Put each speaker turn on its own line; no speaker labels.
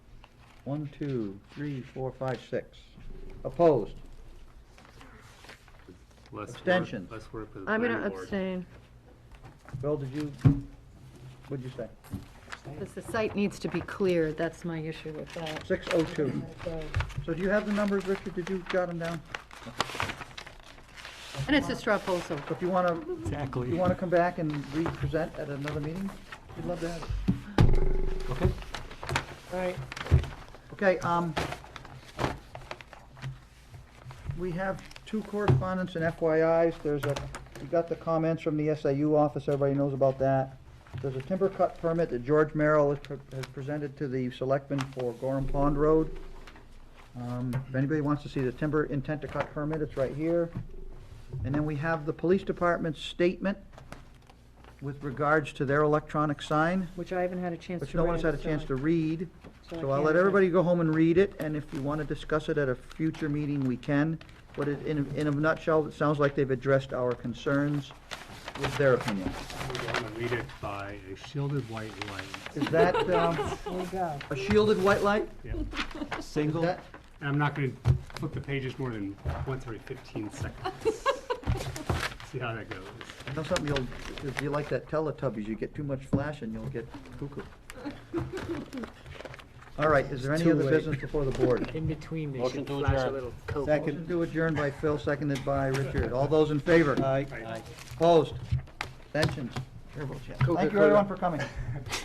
One, two, three, four, five, six. Opposed?
Less work-
Abstentions.
Less work for the
I'm
planning board.
gonna abstain,
Bill, did you, what'd you say?
because the site needs to be cleared, that's my issue with that.
Six oh two.
So-
So do you have the numbers, Richard? Did you jot them down?
And it's a straw poll, so,
So If you want to,
Exactly.
you want to come back and re-present at another meeting, we'd love to have it.
Okay.
all right,
Okay, um, we have two correspondents and FYIs. There's a, we got the comments from the SAU office, everybody knows about that. There's a timber cut permit that George Merrill has pre- has presented to the selectmen for Gorham Pond Road. Um, if anybody wants to see the timber intent to cut permit, it's right here. And then we have the police department's statement with regards to their electronic sign,
which I haven't had a chance to
which no one has had a chance to read.
I
So I'll let
can't-
everybody go home and read it, and if you want to discuss it at a future meeting, we can. But it- in, in a nutshell, it sounds like they've addressed our concerns with their opinion.
We're gonna read it by a shielded white light.
Is that, um, a shielded white light?
Yeah.
Is
Single.
that-
And I'm not gonna flip the pages more than once every fifteen seconds. See how that goes.
I know something you'll, if you like that Teletubbies, you get too much flash and you'll get cuckoo. All right, is there any
Too
other
late.
business before the board?
In between, they
Motion
should
to
flash a
adjourn.
little coke.
Motion to adjourn by Phil, seconded by Richard. All those in favor?
Aye.
Right.
Opposed? Abstentions? Thank you
Coca-Cola.
everyone for coming.